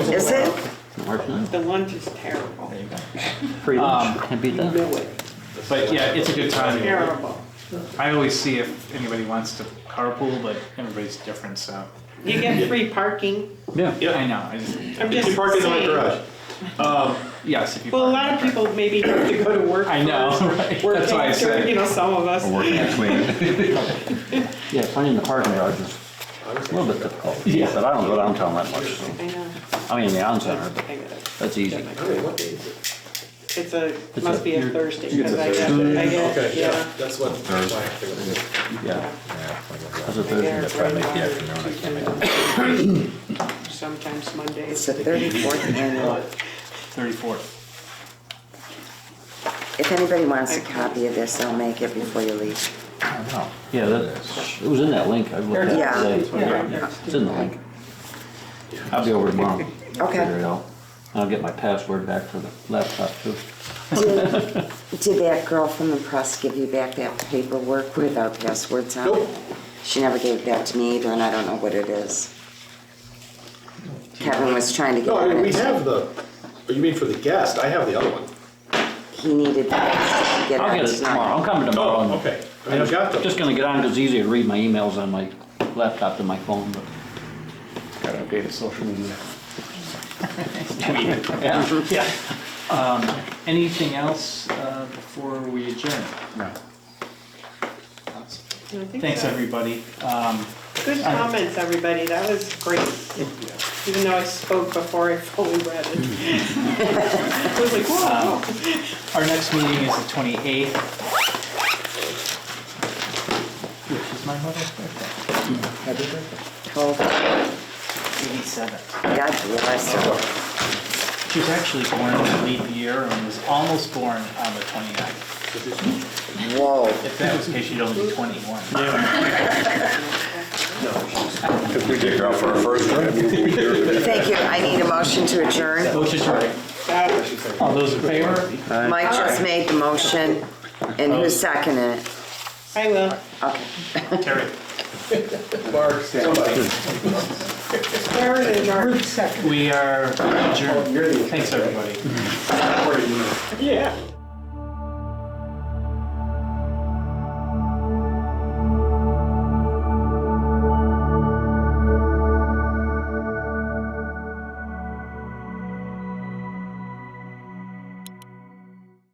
Is it? March 9th. The lunch is terrible. There you go. Free lunch. Can't beat You that. knew it. But yeah, it's a good time. Terrible. I always see if anybody wants to carpool, but everybody's different, so. You get free parking. Yeah. I know, I just, I'm If just you park in the saying. garage. yes, if you. Well, a lot of people maybe have to go to work. I know, first, or right? work That's why I after, said. You know, some of us. We're working next week. Yeah, finding the parking garage is a little bit difficult. Yeah. But I don't go downtown that much, so, I know. I mean, the on center, but I gotta that's easy. get my credit. It's a, It's must a- be a Thursday, because I get, I get, yeah. That's what. that's why I figured it was- Yeah, that's a I Thursday. get Thursday, I make the Friday, afternoon, I can't make Tuesday, Sometimes Mondays. It's the 34th annual. Thirty-fourth. If anybody wants a copy of this, I'll make it before you leave. I don't know. Yeah, that, it was in that link I looked Yeah. at Yeah. today. It's in the link. I'll be over tomorrow. Figure it out. And I'll get my password back for the laptop too. Did did that girl from the press give you back that paperwork with our passwords on it? Nope. She never gave that to me either, and I don't know what it is. Kevin was trying to get No, I mean, on we it. have the, oh, you mean for the guest? I have the other one. He needed that to get I'll on get it tomorrow. I'm tonight. coming tomorrow. Oh, Um, and- okay. I mean, I've got them. Just gonna get on 'cause it's easier to read my emails on my laptop than my phone, but. Gotta update the social media. Yeah, yeah. Anything else uh, before we adjourn? No. Thanks, everybody. Um, Good comments, everybody, that was great. Even though I spoke before I fully read it. I was like, wow. Our next meeting is the twenty-eighth. Which is my mother's birthday. Cool. God Eighty-seventh. bless her. She was actually born in the leap year and was almost born on the 29th. Whoa. If that was the case, she'd only be twenty-one. If we take her out for our first drink. Thank you. I need a motion to adjourn. Motion to adjourn. Oh, All those in favor? Mike just made the motion, and who's seconded it? I will. Okay. Terry. Mark, somebody. Where is Mark? Oh, We are adjourned. Thanks, everybody. Yeah.